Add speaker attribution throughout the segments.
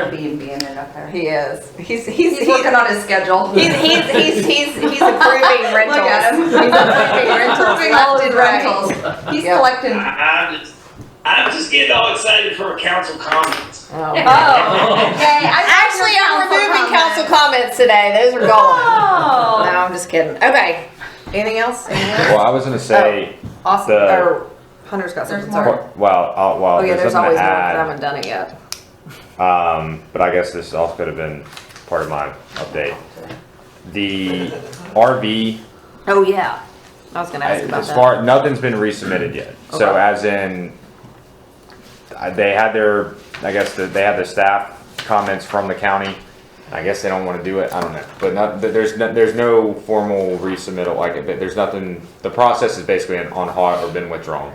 Speaker 1: Airbnb in it up there.
Speaker 2: He is. He's he's
Speaker 1: He's working on his schedule.
Speaker 2: He's he's he's he's, he's approving rentals.
Speaker 1: at him.
Speaker 2: He's approving rentals.
Speaker 1: Approving
Speaker 2: left and right.
Speaker 1: rentals. He's
Speaker 2: Yep.
Speaker 1: collecting.
Speaker 3: I- I'm just, I'm just getting all excited for council comments.
Speaker 2: Oh,
Speaker 1: Yay, I
Speaker 2: actually, I'm
Speaker 1: council
Speaker 2: removing
Speaker 1: comment.
Speaker 2: council comments today. Those are gone.
Speaker 1: Oh.
Speaker 2: No, I'm just kidding. Okay. Anything else? Anything else?
Speaker 4: Well, I was gonna say,
Speaker 2: Austin
Speaker 4: the-
Speaker 2: or Hunter's got something.
Speaker 1: There's
Speaker 2: Sorry.
Speaker 1: more.
Speaker 4: well, I'll, well,
Speaker 2: Oh yeah,
Speaker 4: there's
Speaker 2: there's always
Speaker 4: something
Speaker 2: more,
Speaker 4: to
Speaker 2: but I haven't
Speaker 4: add.
Speaker 2: done it yet.
Speaker 4: Um, but I guess this also could have been part of my update. The RV,
Speaker 2: Oh yeah. I was gonna
Speaker 4: I-
Speaker 2: ask about
Speaker 4: as
Speaker 2: that.
Speaker 4: far, nothing's been resubmitted yet. So
Speaker 2: Okay.
Speaker 4: as in, I- they had their, I guess, the- they had the staff comments from the county. I guess they don't wanna do it, I don't know. But not, but there's, no- there's no formal resubmittal, like, it. there's nothing, the process is basically on hold or been withdrawn.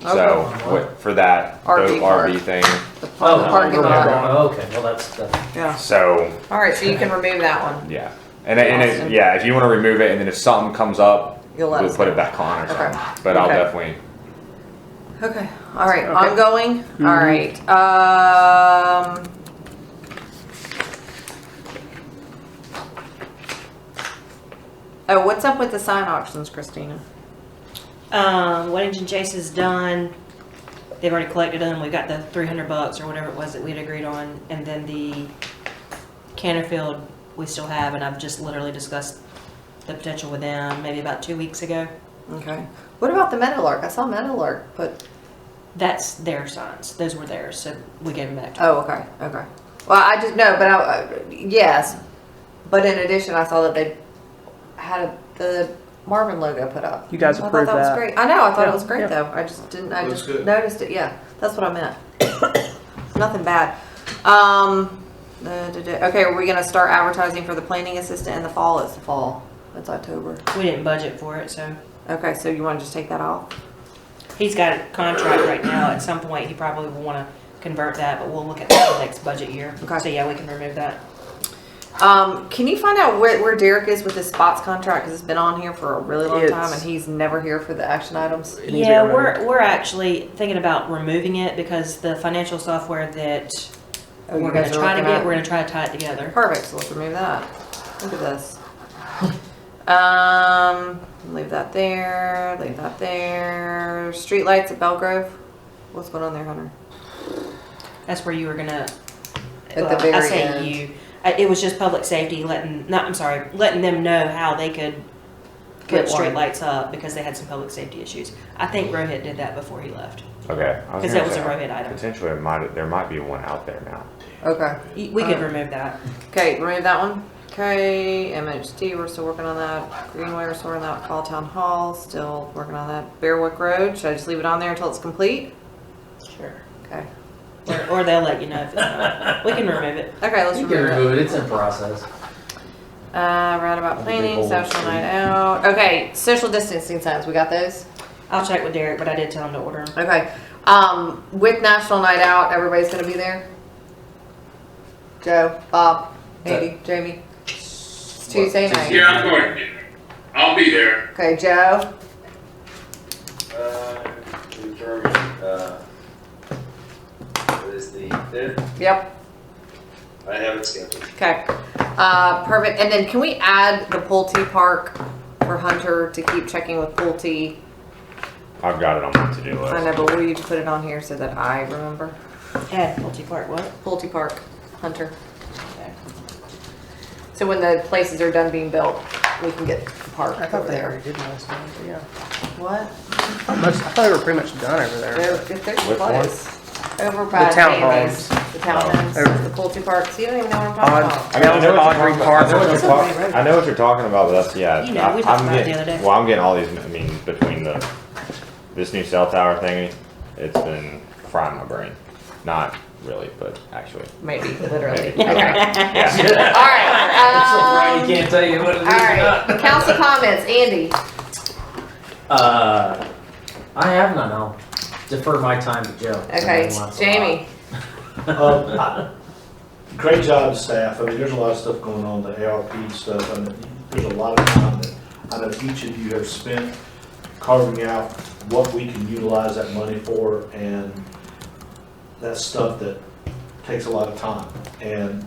Speaker 4: So,
Speaker 2: Okay.
Speaker 4: what- for that,
Speaker 2: RV
Speaker 4: boat
Speaker 2: park.
Speaker 4: RV thing.
Speaker 2: the par-
Speaker 4: Oh,
Speaker 2: the parking lot.
Speaker 5: Oh, okay, well, that's, that's.
Speaker 2: Yeah.
Speaker 4: So
Speaker 2: All right, so you can remove that one.
Speaker 4: yeah, and, it- and
Speaker 2: Awesome.
Speaker 4: it, yeah, if you want to remove it, and then if something comes up,
Speaker 2: You'll let
Speaker 4: we'll
Speaker 2: us
Speaker 4: put
Speaker 2: know.
Speaker 4: it back on or
Speaker 2: Okay.
Speaker 4: something. But I'll
Speaker 2: Okay.
Speaker 4: definitely.
Speaker 2: Okay, all right,
Speaker 5: Okay.
Speaker 2: ongoing, all right, um. Oh, what's up with the sign auctions, Christina?
Speaker 6: Um, Weddington Chase is done. They've already collected them. We got the three hundred bucks or whatever it was that we'd agreed on, and then the Canterfield we still have, and I've just literally discussed the potential with them maybe about two weeks ago.
Speaker 2: Okay, what about the Meadowlark? I saw Meadowlark put,
Speaker 6: That's their signs. Those were theirs, so we gave them back to them.
Speaker 2: oh, okay, okay. Well, I just, no, but I, I- yes, but in addition, I saw that they had a- the Marvin logo put up.
Speaker 5: You guys
Speaker 2: I thought
Speaker 5: approved
Speaker 2: was
Speaker 5: that.
Speaker 2: great. I know, I thought it
Speaker 5: Yeah,
Speaker 2: was great
Speaker 5: yeah.
Speaker 2: though, I just didn't, I
Speaker 7: Looks
Speaker 2: just
Speaker 7: good.
Speaker 2: noticed it, yeah, that's what I meant. Nothing bad. Um, the, the- the- okay, are we gonna start advertising for the planning assistant in the fall? It's the fall. It's October.
Speaker 6: We didn't budget for it, so
Speaker 2: Okay, so you wanna just take that off?
Speaker 6: he's got a contract right now. At some point, he probably will want to convert that, but we'll look at that next budget year.
Speaker 2: Okay.
Speaker 6: So yeah, we can remove that.
Speaker 2: Um, can you find out where, where Derek is with his spots contract? Cause it's been on here for a really long time
Speaker 5: It's-
Speaker 2: and he's never here for the action items.
Speaker 5: It needs to be
Speaker 6: Yeah,
Speaker 5: removed.
Speaker 6: we're, we're actually thinking about removing it because the financial software that
Speaker 2: Oh, you
Speaker 6: we're
Speaker 2: guys
Speaker 6: gonna
Speaker 2: are
Speaker 6: try to
Speaker 2: looking
Speaker 6: get,
Speaker 2: at-
Speaker 6: we're gonna try to tie it together.
Speaker 2: Perfect, so let's remove that. Look at this. Um, leave that there, leave that there. Streetlights at Belgrove. What's going on there, Hunter?
Speaker 6: That's where you were gonna.
Speaker 2: At the
Speaker 6: well, I
Speaker 2: very
Speaker 6: say
Speaker 2: end.
Speaker 6: you. I- It was just public safety letting, not, I'm sorry, letting them know how they could
Speaker 2: Get
Speaker 6: put street
Speaker 2: one.
Speaker 6: lights up because they had some public safety issues. I think Rohit did that before he left.
Speaker 4: Okay. I
Speaker 6: 'Cause
Speaker 4: gonna
Speaker 6: that was
Speaker 4: say,
Speaker 6: a red item.
Speaker 4: Potentially, it might, there might be one out there now.
Speaker 2: Okay.
Speaker 6: Y- We could
Speaker 2: Uh,
Speaker 6: remove that.
Speaker 2: Okay, remove that one. Okay, MHD, we're still working on that. Greenway, we're still working on that. Call Town Hall, still working on that. Bearwick Road, should I just leave it on there until it's complete?
Speaker 6: Sure.
Speaker 2: Okay.
Speaker 6: Or, or they'll let you know if it's not. We can remove it.
Speaker 2: Okay, let's
Speaker 5: You can
Speaker 2: remove it.
Speaker 5: remove it, it's in process.
Speaker 2: Uh, roundabout
Speaker 5: That'd be
Speaker 2: planning,
Speaker 5: bold,
Speaker 2: social
Speaker 5: too.
Speaker 2: night out. Okay, social distancing signs, we got those?
Speaker 6: I'll check with Derek, but I did tell him to order 'em.
Speaker 2: Okay. Um, with National Night Out, everybody's gonna be there. Joe, Bob, Andy, Jamie. It's Tuesday night.
Speaker 8: Yeah, I'm going. I'll be there.
Speaker 2: Okay, Joe.
Speaker 7: Uh, German, uh, what is the fifth?
Speaker 2: Yep.
Speaker 7: I haven't scheduled.
Speaker 2: Okay. Uh, perfect. And then can we add the Pulte Park for Hunter to keep checking with Pulte?
Speaker 4: I've got it on my to-do
Speaker 2: I
Speaker 4: list.
Speaker 2: know, but will you put it on here so that I remember?
Speaker 6: Ed, multi-part, what?
Speaker 2: Pulte Park, Hunter. So when the places are done being built, we can get the park over there.
Speaker 5: did last time, but yeah.
Speaker 2: What?
Speaker 5: Most, I thought they were pretty much done over there.
Speaker 2: They're, if they're
Speaker 4: Which one?
Speaker 2: close. Over by
Speaker 5: The town
Speaker 2: Jamie's.
Speaker 5: homes.
Speaker 2: The townhomes,
Speaker 5: Over.
Speaker 2: the Pulte Parks, you don't even know what I'm talking
Speaker 5: Odd.
Speaker 2: about.
Speaker 4: I mean, I
Speaker 5: That was
Speaker 4: know
Speaker 5: at
Speaker 4: what you're
Speaker 5: Audrey
Speaker 4: talking about. I know
Speaker 5: Park.
Speaker 4: what you're
Speaker 6: That's
Speaker 4: talk-
Speaker 6: Audrey Road.
Speaker 4: I know what you're talking about, but that's, yeah.
Speaker 6: You know, we
Speaker 4: I-
Speaker 6: talked
Speaker 4: I'm
Speaker 6: about it the
Speaker 4: getting-
Speaker 6: other day.
Speaker 4: Well, I'm getting all these, I mean, between the, this new cell tower thingy, it's been frying my brain. Not really, but actually.
Speaker 2: Maybe, literally.
Speaker 4: Maybe. Yeah.
Speaker 2: Alright, um,
Speaker 5: It's a Friday, can't tell you what it is or not.
Speaker 2: alright, council comments, Andy.
Speaker 5: Uh, I have none, I'll defer my time to Joe.
Speaker 2: Okay,
Speaker 5: He wants a lot.
Speaker 2: Jamie,
Speaker 9: Um, I- Great job, staff. I mean, there's a lot of stuff going on, the ARP stuff, and there's a lot of time that I know each of you have spent carving out what we can utilize that money for, and that's stuff that takes a lot of time. And